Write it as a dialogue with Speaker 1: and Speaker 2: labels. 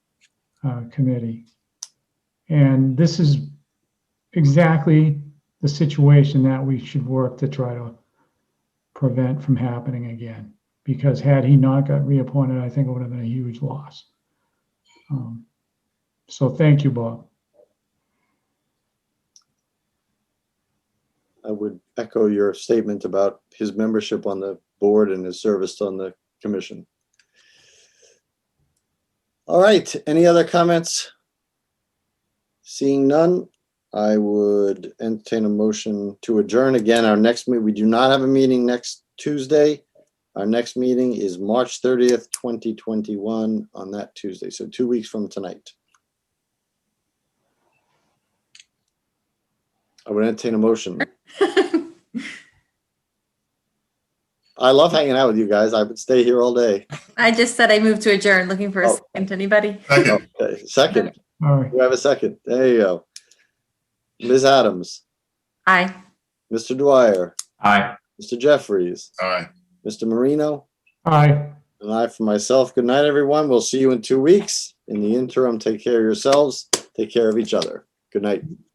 Speaker 1: uh, Committee. And this is exactly the situation that we should work to try to prevent from happening again. Because had he not got reappointed, I think it would have been a huge loss. Um, So thank you, Bob.
Speaker 2: I would echo your statement about his membership on the board and his service on the commission. All right, any other comments? Seeing none, I would entertain a motion to adjourn. Again, our next meeting, we do not have a meeting next Tuesday. Our next meeting is March thirtieth, twenty twenty-one, on that Tuesday, so two weeks from tonight. I would entertain a motion. I love hanging out with you guys. I would stay here all day.
Speaker 3: I just said I moved to adjourn, looking for a
Speaker 2: Oh.
Speaker 3: second. Anybody?
Speaker 4: Second,
Speaker 2: Okay, Second,
Speaker 1: All right,
Speaker 2: we have a second. There you go. Ms. Adams,
Speaker 3: Aye.
Speaker 2: Mr. Dwyer,
Speaker 5: Aye.
Speaker 2: Mr. Jeffries,
Speaker 4: aye.
Speaker 2: Mr. Marino,
Speaker 1: aye.
Speaker 2: and I for myself. Good night, everyone. We'll see you in two weeks. In the interim, take care of yourselves. Take care of each other. Good night.